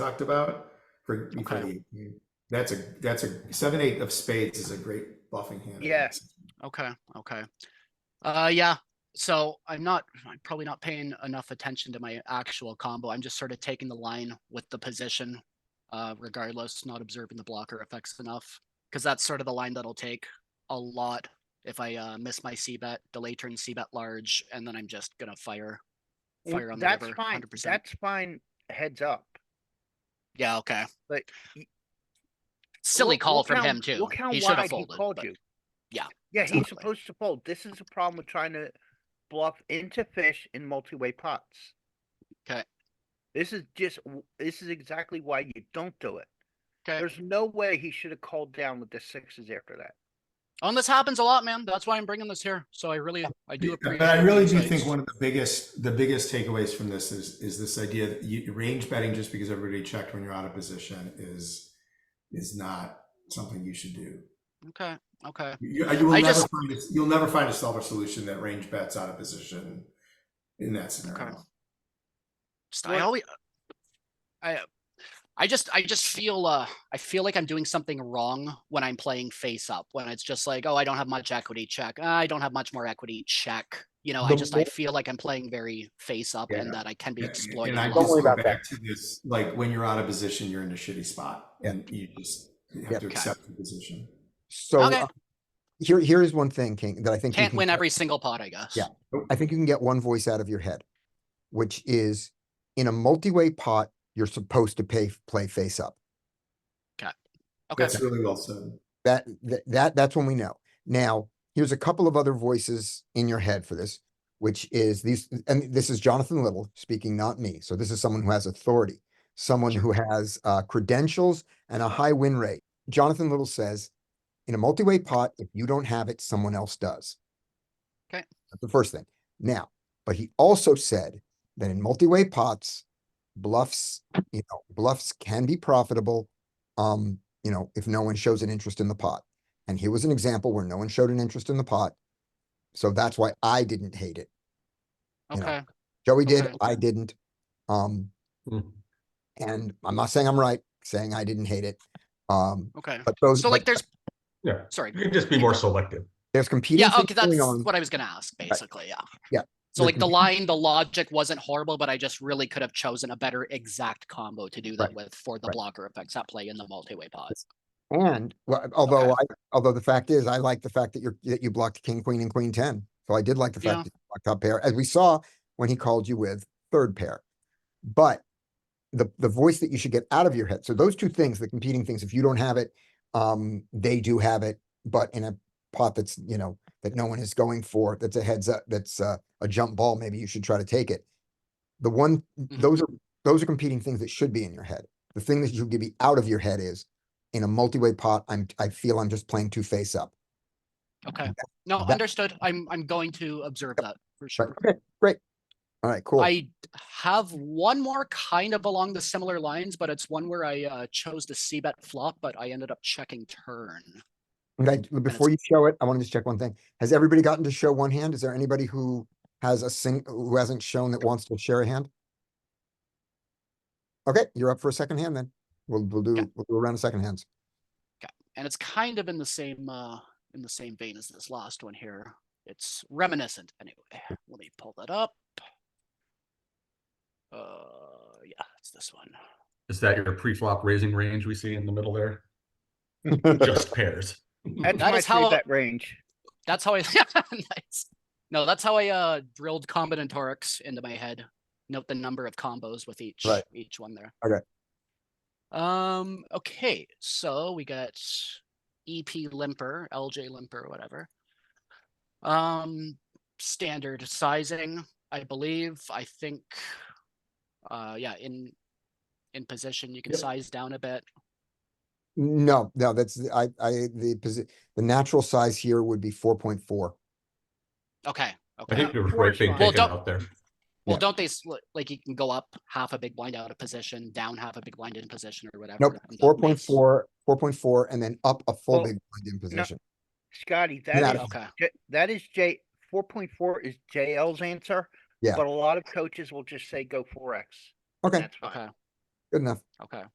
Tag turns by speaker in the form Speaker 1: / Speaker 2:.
Speaker 1: talked about for, for
Speaker 2: Okay.
Speaker 1: the, that's a, that's a, seven, eight of spades is a great bluffing hand.
Speaker 2: Yeah. Okay, okay. Uh, yeah, so I'm not, I'm probably not paying enough attention to my actual combo. I'm just sort of taking the line with the position. Uh, regardless, not observing the blocker effects enough, because that's sort of the line that'll take a lot. If I uh miss my C bet, delay turn C bet large, and then I'm just gonna fire.
Speaker 3: Well,
Speaker 2: Fire on the
Speaker 3: That's
Speaker 2: river,
Speaker 3: fine,
Speaker 2: 100%.
Speaker 3: that's fine heads up.
Speaker 2: Yeah, okay.
Speaker 3: But y-
Speaker 2: Silly
Speaker 3: look-
Speaker 2: call
Speaker 3: look
Speaker 2: from
Speaker 3: how-
Speaker 2: him too.
Speaker 3: Look how
Speaker 2: He should have
Speaker 3: wide he
Speaker 2: folded.
Speaker 3: called
Speaker 2: but-
Speaker 3: you.
Speaker 2: yeah,
Speaker 3: Yeah, he's
Speaker 2: exactly.
Speaker 3: supposed to fold. This is the problem with trying to bluff into fish in multi-way pots.
Speaker 2: 'Kay.
Speaker 3: This is just, w- this is exactly why you don't do it.
Speaker 2: 'Kay.
Speaker 3: There's no way he should have called down with the sixes after that.
Speaker 2: Oh, And this happens a lot, man. That's why I'm bringing this here. So I really, I do appreciate.
Speaker 1: But I
Speaker 2: your
Speaker 1: really do
Speaker 2: insights.
Speaker 1: think one of the biggest, the biggest takeaways from this is, is this idea that you, range betting just because everybody checked when you're out of position is, is not something you should do.
Speaker 2: Okay, okay.
Speaker 1: You, you will
Speaker 2: I
Speaker 1: never
Speaker 2: just-
Speaker 1: find, a- you'll never find a solver solution that range bets out of position in that scenario.
Speaker 2: Just, I
Speaker 3: Well-
Speaker 2: always, I, I just, I just feel, uh, I feel like I'm doing something wrong when I'm playing face up, when it's just like, oh, I don't have much equity, check. Ah, I don't have much more equity, check. You know, I
Speaker 4: The
Speaker 2: just, I feel like I'm playing very face up and that I can be
Speaker 1: Yeah,
Speaker 2: exploited.
Speaker 1: And I
Speaker 2: a
Speaker 4: Don't
Speaker 2: lot.
Speaker 1: just
Speaker 4: worry
Speaker 1: go
Speaker 4: about
Speaker 1: back to this, like, when you're out of position, you're in a shitty spot and you just you
Speaker 4: Yeah.
Speaker 1: have to
Speaker 2: Okay.
Speaker 1: accept the position.
Speaker 4: So
Speaker 2: Okay.
Speaker 4: uh, here, here is one thing, King, that I think. you
Speaker 2: Can't
Speaker 4: can
Speaker 2: win
Speaker 4: get-
Speaker 2: every single pot, I guess.
Speaker 4: Yeah. I think you can get one voice out of your head, which is in a multi-way pot, you're supposed to pay, play face up.
Speaker 2: Okay,
Speaker 1: That's really well said.
Speaker 4: That, th- that, that's when we know. Now, here's a couple of other voices in your head for this, which is these, and this is Jonathan Little speaking, not me. So this is someone who has authority, someone who has uh, credentials and a high win rate. Jonathan Little says, in a multi-way pot, if you don't have it, someone else does.
Speaker 2: Okay.
Speaker 4: That's the first thing. Now, but he also said that in multi-way pots, bluffs, you know, bluffs can be profitable. Um, you know, if no one shows an interest in the pot. And here was an example where no one showed an interest in the pot. So that's why I didn't hate it. you know,
Speaker 2: okay.
Speaker 4: Joey did,
Speaker 2: Okay.
Speaker 4: I didn't. Um,
Speaker 5: Hmm.
Speaker 4: and I'm not saying I'm right, saying I didn't hate it. Um,
Speaker 2: Okay.
Speaker 4: but those,
Speaker 2: So like
Speaker 4: but
Speaker 2: there's.
Speaker 5: Yeah.
Speaker 2: Sorry.
Speaker 5: You can just be more selective.
Speaker 4: there's competing
Speaker 2: Yeah,
Speaker 4: things
Speaker 2: okay, that's
Speaker 4: going on.
Speaker 2: what I was gonna ask, basically, yeah.
Speaker 4: Yeah,
Speaker 2: So
Speaker 4: there
Speaker 2: like
Speaker 4: can
Speaker 2: the
Speaker 4: be-
Speaker 2: line, the logic wasn't horrible, but I just really could have chosen a better exact combo to do that with for the
Speaker 4: Right.
Speaker 2: blocker effects at play in the multi-way pot.
Speaker 4: And well, although I, although the fact is, I like the fact that you're, that you blocked king, queen and queen ten. So I did like the
Speaker 2: Yeah.
Speaker 4: fact that you blocked top pair, as we saw when he called you with third pair. But the, the voice that you should get out of your head. So those two things, the competing things, if you don't have it, um, they do have it, but in a pot that's, you know, that no one is going for, that's a heads up, that's a, a jump ball, maybe you should try to take it. The one, those are, those are competing things that should be in your head. The thing that should be out of your head is in a multi-way pot, I'm, I feel I'm just playing two face up.
Speaker 2: Okay, no,
Speaker 4: that-
Speaker 2: understood. I'm, I'm going to observe that for
Speaker 4: Right,
Speaker 2: sure.
Speaker 4: okay, great. All right, cool.
Speaker 2: I have one more kind of along the similar lines, but it's one where I uh chose the C bet flop, but I ended up checking turn.
Speaker 4: Okay, d- before you show it, I want to just check one thing. Has everybody gotten to show one hand? Is there anybody who has a sing, who hasn't shown that wants to share a hand? Okay, you're up for a second hand then. We'll, we'll do,
Speaker 2: Yeah.
Speaker 4: we'll do a round of second hands.
Speaker 2: and it's kind of in the same uh in the same vein as this last one here. It's reminiscent anyway. Let me pull that up. Uh yeah, it's this one.
Speaker 5: Is that your pre-flop raising range we see in the middle there? Just pairs.
Speaker 3: That's
Speaker 2: Hmm. That
Speaker 3: my
Speaker 2: is how-
Speaker 3: three bet range.
Speaker 2: That's how I nice. No, that's how I uh drilled combinatorics into my head. Note the number of combos with each
Speaker 4: Right.
Speaker 2: each one there.
Speaker 4: Okay.
Speaker 2: Um okay, so we got EP limper, LJ limper, whatever. Um standard sizing, I believe. I think uh yeah, in in position you can
Speaker 5: Yep.
Speaker 2: size down a bit.
Speaker 4: No, no, that's, the- I, I, the, posi- the natural size here would be four point four.
Speaker 2: Okay.
Speaker 5: I
Speaker 2: Okay.
Speaker 5: think there was right big
Speaker 3: Well,
Speaker 5: taken
Speaker 2: don't-
Speaker 5: out there.
Speaker 2: Well,
Speaker 4: Yeah.
Speaker 2: don't they sl- like you can go up half a big blind out of position, down half a big blind in position or whatever?
Speaker 4: Nope,
Speaker 2: and the
Speaker 4: four point
Speaker 2: mix?
Speaker 4: four, four point four, and then up a full
Speaker 3: Well,
Speaker 4: big blind in position.
Speaker 3: Scotty,
Speaker 4: Yeah.
Speaker 3: that is,
Speaker 2: Okay,
Speaker 3: J- that is J, four point four is JL's answer.
Speaker 4: Yeah.
Speaker 3: But a lot of coaches will just say go four X.
Speaker 4: Okay,
Speaker 3: That's fine.
Speaker 2: okay.
Speaker 4: Good enough.
Speaker 2: Okay.